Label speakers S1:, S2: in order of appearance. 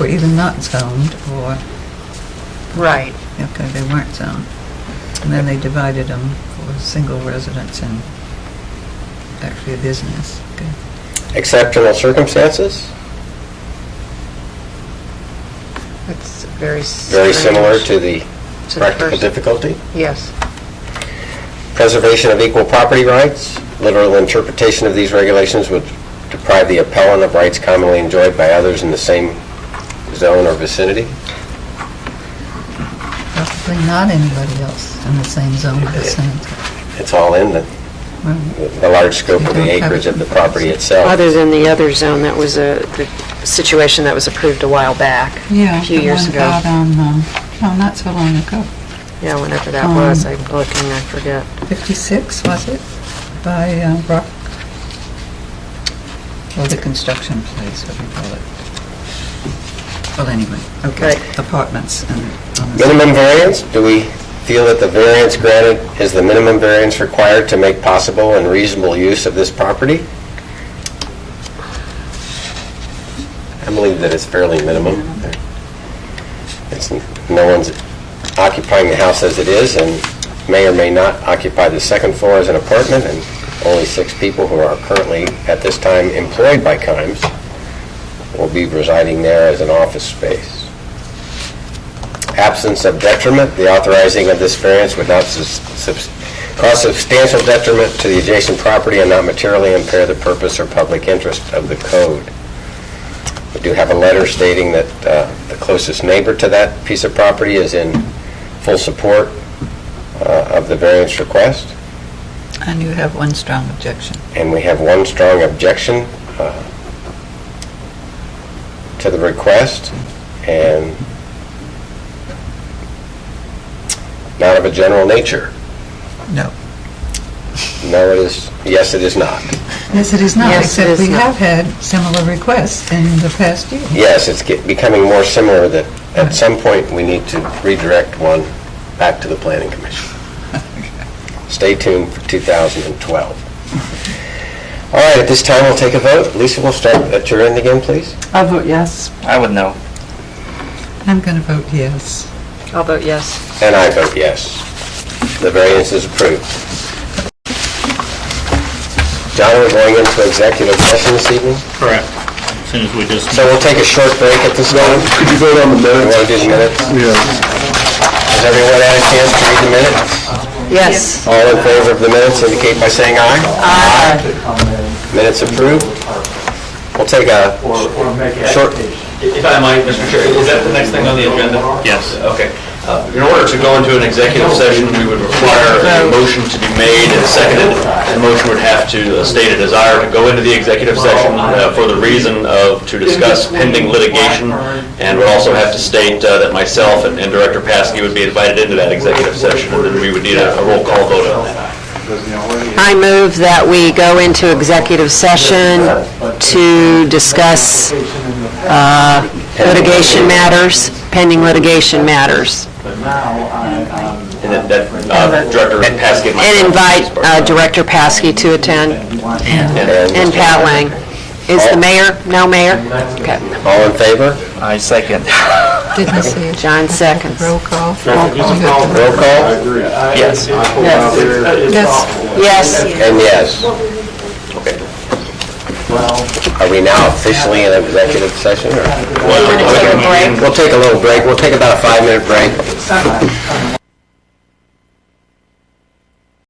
S1: were either not zoned or,
S2: Right.
S1: okay, they weren't zoned. And then they divided them for single residence and actually a business. Okay.
S3: Exceptional circumstances,
S2: It's very.
S3: very similar
S2: strange
S3: to the
S2: to the
S3: practical
S2: first-
S3: difficulty.
S2: Yes.
S3: Preservation of equal property rights, literal interpretation of these regulations would deprive the appellant of rights commonly enjoyed by others in the same zone or vicinity.
S1: Probably not anybody else in the same zone at the same time.
S3: It's all in the,
S1: Right.
S3: the large scope of the acreage of the property itself.
S2: Other than the other zone, that was a, the situation that was approved a while back.
S1: Yeah.
S2: A few
S1: the
S2: years
S1: one
S2: ago.
S1: out on, um, no, not so long ago,
S2: Yeah, whenever that was,
S1: Um,
S2: I'm looking, I forget.
S1: 56, was it, by uh, Rock, or the construction place, what do you call it? Well, anyway, okay,
S2: Right.
S1: apartments and... on the-
S3: Minimum variance, do we feel that the variance granted is the minimum variance required to make possible and reasonable use of this property? I believe that it's fairly minimum. It's, no one's occupying the house as it is, and may or may not occupy the second floor as an apartment, and only six people who are currently, at this time, employed by Kimes will be residing there as an office space absence of detriment, the authorizing of this variance would not sus- subs- cause substantial detriment to the adjacent property and not materially impair the purpose or public interest of the code. We do have a letter stating that uh, the closest neighbor to that piece of property is in full support uh, of the variance request,
S1: And you have one strong objection.
S3: and we have one strong objection uh, to the request, and not of a general nature.
S1: No.
S3: No, it is, yes, it is not.
S1: Yes, it is not,
S2: Yes, it
S1: except
S2: is
S1: we
S2: not.
S1: have had similar requests in the past year.
S3: Yes, it's get- becoming more similar that at some point, we need to redirect one back to the Planning Commission. Stay tuned for 2012. All right, at this time, we'll take a vote. Lisa, we'll start at your end again, please.
S4: I vote yes.
S5: I would know.
S1: I'm going to vote yes.
S2: I'll vote yes.
S3: And I vote yes. The variance is approved. John, we're going into executive session this evening,
S5: Correct. As soon as we just...
S3: so we'll take a short break at this time.
S6: Could you vote on the
S3: You
S6: minutes?
S3: want to do the minutes?
S6: Yeah.
S3: Has everyone had a chance to read the minutes?
S2: Yes.
S3: All in favor of the minutes indicate by saying aye. Aye. Minutes approved. We'll take a short,
S7: If I might, Mr. Chair, is that the next thing on the agenda?
S5: Yes.
S7: Okay. Uh, In order to go into an executive session, we would require a motion to be made and seconded. The motion would have to uh, state a desire to go into the executive session uh, for the reason of, to discuss pending litigation, and would also have to state uh, that myself and and Director Paskey would be invited into that executive session, and then we would need a a roll call vote on that.
S2: I move that we go into executive session to discuss uh, litigation matters, pending litigation matters,
S7: And then that, uh, Director Paskey and myself.
S2: and invite uh, Director Paskey to attend, and Pat Lang. Is the mayor, no mayor? Okay.
S3: all in favor?
S5: I second.
S1: Didn't see it.
S2: John seconds.
S1: Roll call.
S3: Roll call?
S5: Yes.
S1: Yes,
S2: Yes.
S3: And yes. Are we now officially in executive session? or-
S2: We're gonna take a break.
S3: We'll take a little break. We'll take about a five-minute break.